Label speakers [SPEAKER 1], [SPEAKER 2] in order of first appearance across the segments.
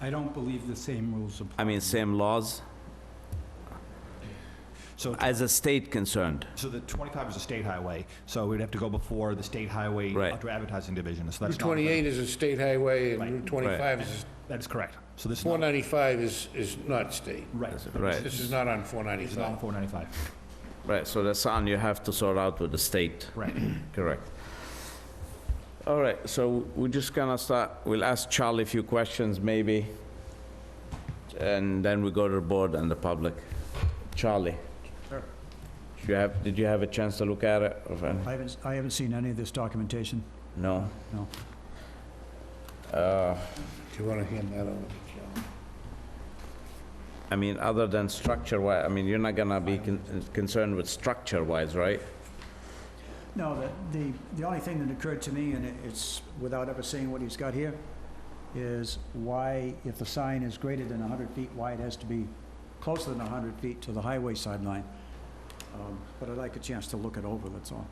[SPEAKER 1] I don't believe the same rules apply.
[SPEAKER 2] I mean, same laws,
[SPEAKER 3] So,
[SPEAKER 2] as a state concerned.
[SPEAKER 3] so the 25 is a state highway, so we'd have to go before the state highway
[SPEAKER 2] Right.
[SPEAKER 3] outdoor advertising division, so
[SPEAKER 4] Route
[SPEAKER 3] that's not...
[SPEAKER 4] 28 is a state highway, and
[SPEAKER 3] Right.
[SPEAKER 4] Route 25 is,
[SPEAKER 3] That is correct. So this is not...
[SPEAKER 4] 495 is, is not state.
[SPEAKER 3] Right.
[SPEAKER 2] Right.
[SPEAKER 4] This is not on
[SPEAKER 3] It's not
[SPEAKER 4] 495.
[SPEAKER 3] 495.
[SPEAKER 2] Right, so that's something you have to sort out with the state.
[SPEAKER 3] Right.
[SPEAKER 2] Correct. All right, so we're just gonna start, we'll ask Charlie a few questions maybe, and then we go to the board and the public. Charlie? Sure. You have, did you have a chance to look at it? or-
[SPEAKER 5] I haven't, I haven't seen any of this documentation.
[SPEAKER 2] No?
[SPEAKER 5] No.
[SPEAKER 2] Uh,
[SPEAKER 4] Do you want to hand that over to Joe?
[SPEAKER 2] I mean, other than structure-wise, I mean, you're not gonna be con- concerned with structure-wise, right?
[SPEAKER 5] No, the, the, the only thing that occurred to me, and it- it's without ever seeing what he's got here, is why, if the sign is greater than hundred feet, why it has to be closer than hundred feet to the highway sideline. Um, But I'd like a chance to look it over, that's all.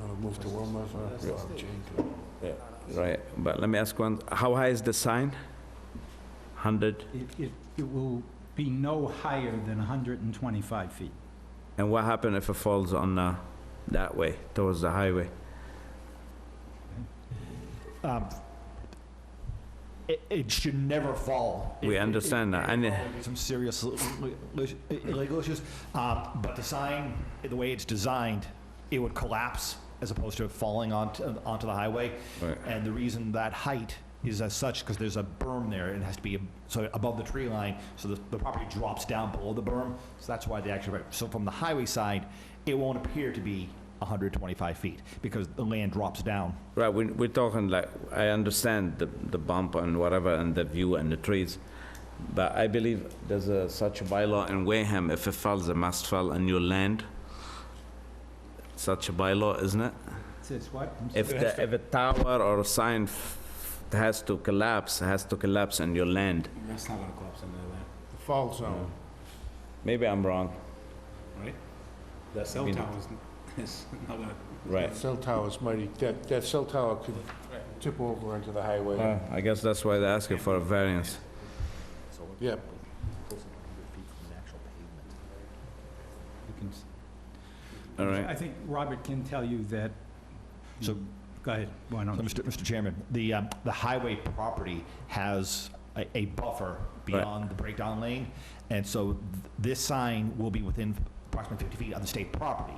[SPEAKER 4] Want to move to Wilma's or Jane?
[SPEAKER 2] Right, but let me ask one, how high is the sign? 100?
[SPEAKER 1] It, it, it will be no higher than 125 feet.
[SPEAKER 2] And what happened if it falls on uh, that way, towards the highway?
[SPEAKER 3] Um, It, it should never fall.
[SPEAKER 2] We understand that, and, uh,
[SPEAKER 3] Some serious l- l- legal issues, Uh, but the sign, the way it's designed, it would collapse as opposed to falling onto, onto the highway.
[SPEAKER 2] Right.
[SPEAKER 3] And the reason that height is as such, because there's a berm there, and it has to be, ab- so above the tree line, so the, the property drops down below the berm, so that's why the actual, so from the highway side, it won't appear to be 125 feet, because the land drops down.
[SPEAKER 2] right, we- we're talking like, I understand the the bump and whatever, and the view and the trees, but I believe there's a- such a bylaw in Wareham, if it falls, it must fall on your land. Such a bylaw, isn't it?
[SPEAKER 1] Says what?
[SPEAKER 2] If the, if a tower or a sign f- has to collapse, has to collapse on your land.
[SPEAKER 6] That's not gonna collapse into that,
[SPEAKER 4] The fall zone.
[SPEAKER 2] Maybe I'm wrong,
[SPEAKER 6] right? That cell
[SPEAKER 2] mean-
[SPEAKER 6] tower is, is not gonna,
[SPEAKER 2] right?
[SPEAKER 4] Cell tower's mighty, that, that cell tower could tip over onto the highway.
[SPEAKER 2] Uh, I guess that's why they're asking for a variance.
[SPEAKER 4] Yep.
[SPEAKER 1] You can s-
[SPEAKER 2] All right.
[SPEAKER 1] I think Robert can tell you that.
[SPEAKER 3] So-
[SPEAKER 1] Go ahead, why
[SPEAKER 3] So,
[SPEAKER 1] don't?
[SPEAKER 3] Mr. Mr. Chairman, the, um, the highway property has a, a buffer beyond the breakdown lane, and so th- this sign will be within approximately 50 feet of the state property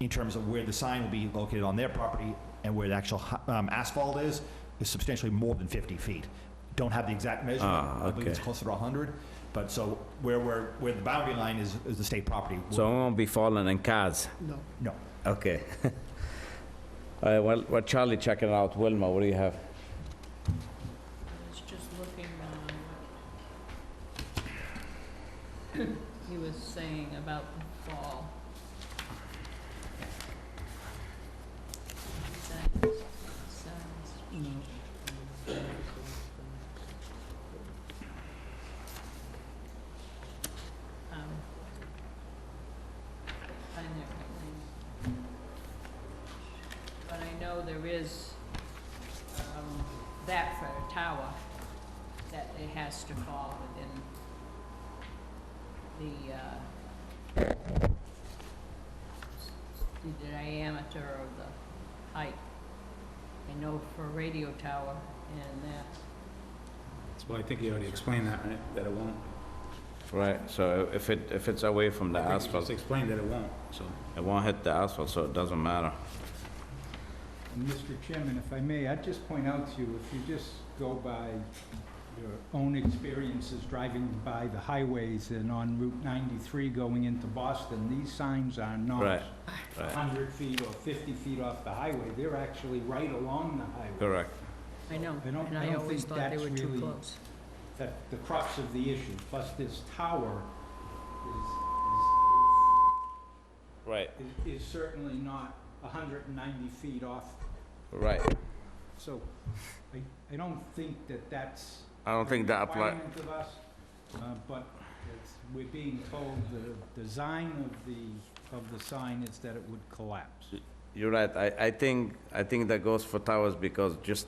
[SPEAKER 3] in terms of where the sign will be located on their property and where the actual hi- um, asphalt is, is substantially more than 50 feet. Don't have the exact measurement.
[SPEAKER 2] Ah,
[SPEAKER 3] I believe it's
[SPEAKER 2] okay.
[SPEAKER 3] closer to 100, but so where, where, where the boundary line is, is the state property.
[SPEAKER 2] So I won't be falling in cars?
[SPEAKER 3] No.
[SPEAKER 2] Okay. All right, well, well, Charlie checking out. Wilma, what do you have?
[SPEAKER 7] was just looking on what um, he was saying about the fall. Sounds- sounds- Um, I never really- But I know there is, um, that for a tower, that it has to fall within the, uh, the diameter of the height. I know for a radio tower and that,
[SPEAKER 6] well, I think you already explained that, right? That it won't.
[SPEAKER 2] Right, so if it, if it's away from the
[SPEAKER 6] I think you just
[SPEAKER 2] asphalt,
[SPEAKER 6] explained that it won't, so.
[SPEAKER 2] it won't hit the asphalt, so it doesn't matter.
[SPEAKER 1] Mr. Chairman, if I may, I'd just point out to you, if you just go by your own experiences driving by the highways and on Route 93 going into Boston, these signs are
[SPEAKER 2] Right,
[SPEAKER 1] not
[SPEAKER 2] right.
[SPEAKER 1] 100 feet or 50 feet off the highway. They're actually right along the highway.
[SPEAKER 2] Correct.
[SPEAKER 7] I know,
[SPEAKER 1] I don't-
[SPEAKER 7] and
[SPEAKER 1] I
[SPEAKER 7] I
[SPEAKER 1] don't
[SPEAKER 7] always
[SPEAKER 1] think
[SPEAKER 7] thought they
[SPEAKER 1] that's
[SPEAKER 7] were too
[SPEAKER 1] really-
[SPEAKER 7] close.
[SPEAKER 1] that the crux of the issue, plus this tower
[SPEAKER 2] Right,
[SPEAKER 1] is, is, is certainly not hundred and ninety feet off.
[SPEAKER 2] right.
[SPEAKER 1] So I, I don't think that that's.
[SPEAKER 2] I don't think that
[SPEAKER 1] a
[SPEAKER 2] apply,
[SPEAKER 1] requirement of us, uh, but it's, we're being told the design of the, of the sign is that it would collapse.
[SPEAKER 2] you're right. I, I think, I think that goes for towers because just